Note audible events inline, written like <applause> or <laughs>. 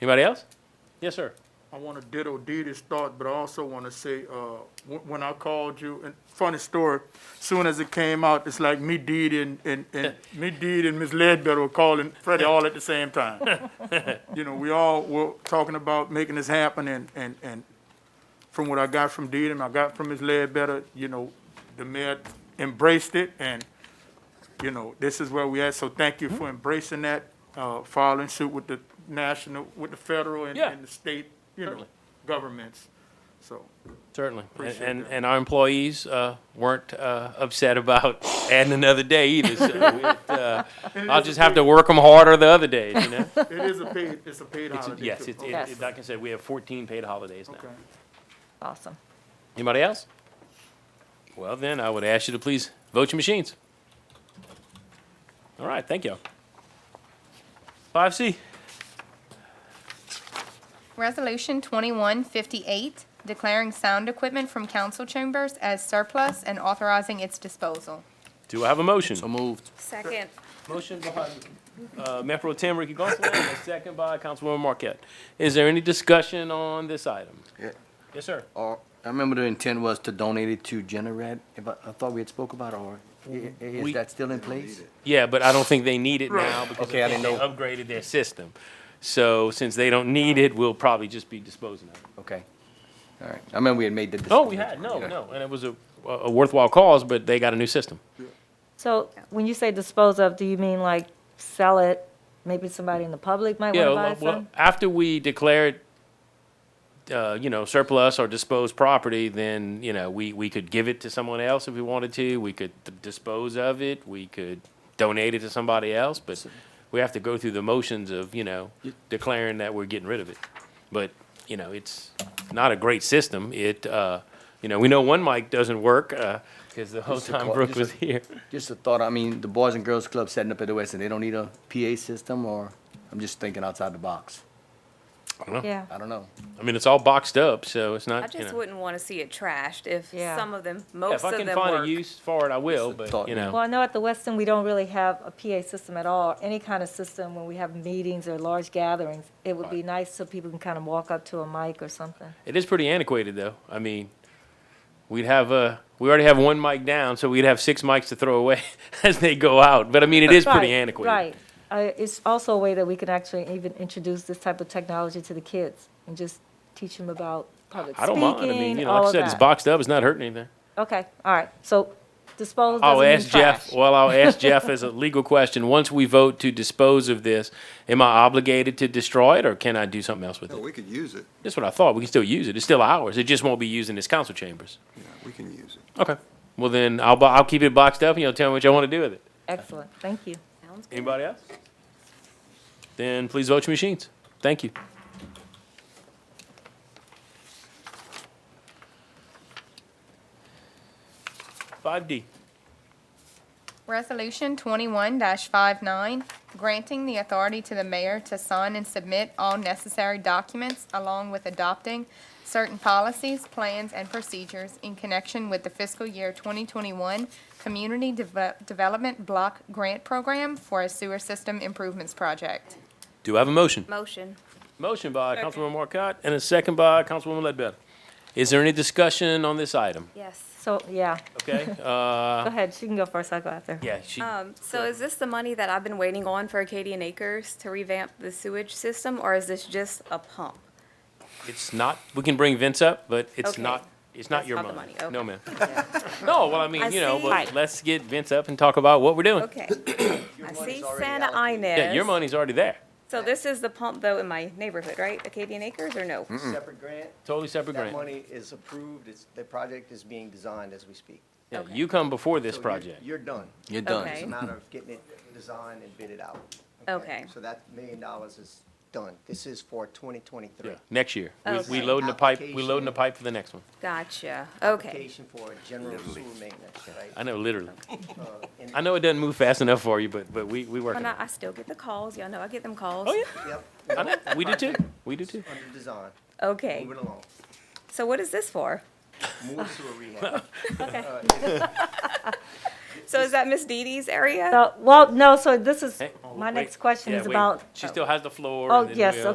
Anybody else? Yes, sir. I want to ditto Dee Dee's thought, but I also want to say, uh, wh- when I called you, and funny story, soon as it came out, it's like me, Dee Dee, and, and, and me, Dee Dee, and Ms. Ledbetter were calling Freddie all at the same time. You know, we all were talking about making this happen, and, and, and from what I got from Dee Dee, and I got from Ms. Ledbetter, you know, the mayor embraced it, and, you know, this is where we at, so thank you for embracing that, uh, following suit with the national, with the federal and, Yeah. and the state, you know, Certainly. governments, so. Certainly. And, Appreciate and, that. and our employees, uh, weren't, uh, upset about <laughs> adding another day either, so it, uh, And it I'll is a just have to paid- work them harder the other days, you know? It is a paid, it's a paid It's- holiday. Yes, too. it's, it- Okay. it- like I said, we have fourteen paid holidays now. Okay. Awesome. Anybody else? Well, then, I would ask you to please vote your machines. All right, thank you. Five C, Resolution 2158, declaring sound equipment from council chambers as surplus and authorizing its disposal. do I have a motion? moved. Second. Motion by, uh, Mayor Pro Tem Ricky Gonsalas, and a second by Councilwoman Marquette. Is there any discussion on this item? Yeah. Yes, sir. Or, I remember the intent was to donate it to Generat, if I, I thought we had spoke about, it, or i- i- We- is that still in place? Yeah, but I don't think they need it now because I Okay, I think they didn't upgraded their system. So since they don't need it, we'll probably just be disposing of it. Okay. All right. I remember we had made the. Oh, we had, no, Yeah. no, and it was a, a worthwhile cause, but they got a new system. So when you say dispose of, do you mean like sell it? Maybe somebody in the public might Yeah, want well, to buy well, some? after we declare it, uh, you know, surplus or disposed property, then, you know, we, we could give it to someone else if we wanted to. We could d- dispose of it. We could donate it to somebody else, but we have to go through the motions of, you know, declaring that we're getting rid of it. But, you know, it's not a great system. It, uh, you know, we know one mic doesn't work, uh 'cause cause the whole Just a time call- Brooke just a- was here. Just a thought, I mean, the Boys and Girls Club setting up at the West, and they don't need a PA system, or, I'm just thinking outside the box. Yeah, I don't know. I mean, it's all boxed up, so it's I not, you just know. wouldn't want to see it trashed if Yeah. some of them, Yeah, most If I of can them find a work. use for it, I will, but, thought, you yeah. know. well, I know at the Westin, we don't really have a PA system at all, any kind of system when we have meetings or large gatherings. It would be nice so people can kind of walk up to a mic or something. It is pretty antiquated, though. I mean, we'd have uh, we already have one mic down, so we'd have six mics to throw away <laughs> as they go out. But I mean, it is Right, pretty antiquated. Right. Uh, It's also a way that we can actually even introduce this type of technology to the kids and just teach them about public I don't mind. I mean, you speaking, know, like all I of said, it's that. boxed up. It's not hurting anything. Okay, all right. So dispose doesn't I'll mean Oh, ask Jeff. trash. Well, I'll <laughs> ask Jeff as a legal question. Once we vote to dispose of this, am I obligated to destroy it, or can I do something else with No, it? we could use it. That's what I thought. We can still use it. It's still ours. It just won't be used in this council chambers. Yeah, we can use it. Okay. Well, then I'll bo- I'll keep it boxed up, and you'll tell me what y'all want to do with it. Excellent, thank you. Sounds good. Anybody else? Then please vote your machines. Thank you. Five D. Resolution 21-59, granting the authority to the mayor to sign and submit all necessary documents along with adopting certain policies, plans, and procedures in connection with the fiscal year 2021 Community Deve- Development Block Grant Program for a sewer system improvements project. Do I have a motion? Motion. Motion by Second. Councilwoman Marquardt and a second by Councilwoman Ledbetter. Is there any discussion on this item? Yes. So, yeah, Okay, <laughs> uh, go ahead, she can go first, I'll go after. yeah, she, Um, so is this the money that I've been waiting on for Acadian Acres to revamp the sewage system, or is this just <coughs> a pump? it's not, we can bring Vince up, but it's Okay. not, it's not That's your not the money. money, No, okay. <laughs> ma'am. No, well, I mean, I you know, see. but Right. let's get Vince up and talk about what we're doing. Okay. I money's see already Santa Inez. Yeah, your money's already there. So this is the pump though in my neighborhood, right? Acadian Acres or Mm, no? separate grant. Totally separate grant. That money is approved, it's, the project is being designed as we speak. Yeah, Okay. you come before this So you're- project. You're done. You're done. Okay. It's a matter of getting it designed and bid it out. Okay. So that million dollars is done. This is for twenty twenty-three. Yeah, next year. We, we Okay. loading the pipe, we loading the Application. pipe for the next one. Gotcha. Okay. Application for general sewer maintenance, I right? know, literally. Uh, and- I know it doesn't move fast enough for you, but, but we, we working And I, on it. I still get the calls. Y'all know I get them calls. Oh, yeah, Yep, I know. We do too. We do too. under design, Okay. moving along. So what is <laughs> this for? More sewer rehab. <laughs> So is that Miss Dee Dee's area? So, well, no, so this is, Hey, oh, my wait. next question Yeah, is wait. about She still has the floor. Oh, and then yes, we'll-